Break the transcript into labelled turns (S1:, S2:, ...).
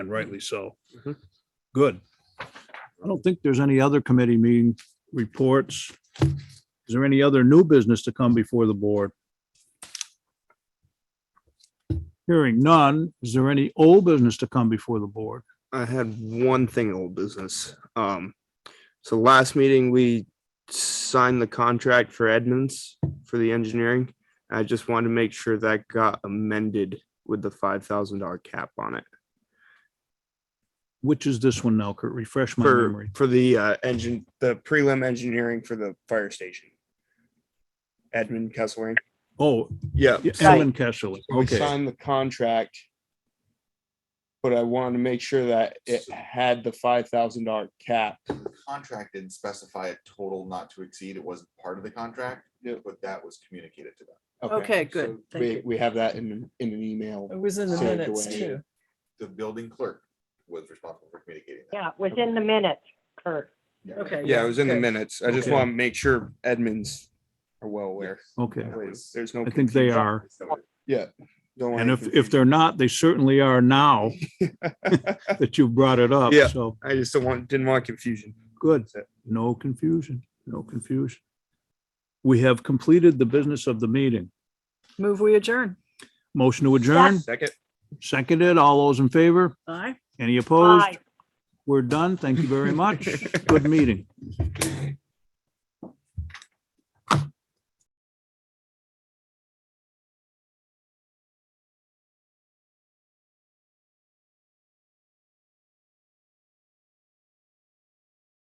S1: and rightly so.
S2: Mhm.
S1: Good. I don't think there's any other committee meeting reports. Is there any other new business to come before the board? Hearing none, is there any old business to come before the board?
S2: I had one thing old business. Um, so last meeting, we signed the contract for Edmonds for the engineering. I just wanted to make sure that got amended with the five thousand dollar cap on it
S1: Which is this one now, Kurt? Refresh my
S2: for,
S1: memory.
S2: for the, uh, engine, the prelim engineering for the fire station. Edmund Kesselring.
S1: Oh,
S2: Yeah.
S1: Alan Kessler.
S2: So We
S1: Okay,
S2: signed the contract. But I wanted to make sure that it had the five thousand dollar cap.
S3: contract didn't specify a total not to exceed. It wasn't part of the contract,
S2: Yep.
S3: but that was communicated to them.
S4: Okay, good.
S2: so
S4: Thank
S2: we-
S4: you.
S2: We have that in, in an email.
S4: It was in the
S2: Saved
S4: minutes
S2: away.
S4: too.
S3: The building clerk was responsible for communicating that.
S5: Yeah, within the minutes, Kurt.
S4: Okay.
S2: Yeah, it was in the
S4: good.
S2: minutes. I just
S1: Okay.
S2: want to make sure Edmonds are well aware.
S1: okay.
S2: There's there's no.
S1: I think they
S2: confusion.
S1: are.
S2: Don't want
S1: And
S2: any
S1: if, if
S2: confusion.
S1: they're not, they certainly are now that you've brought it up.
S2: Yeah.
S1: So,
S2: I just don't want, didn't want confusion.
S1: good.
S2: That's it.
S1: No confusion, no confusion. We have completed the business of the meeting.
S4: Move we adjourn.
S1: Motion to adjourn,
S2: Second.
S1: seconded. All those in favor?
S4: Aye.
S1: Any opposed?
S5: Aye.
S1: We're done. Thank you very much. Good meeting.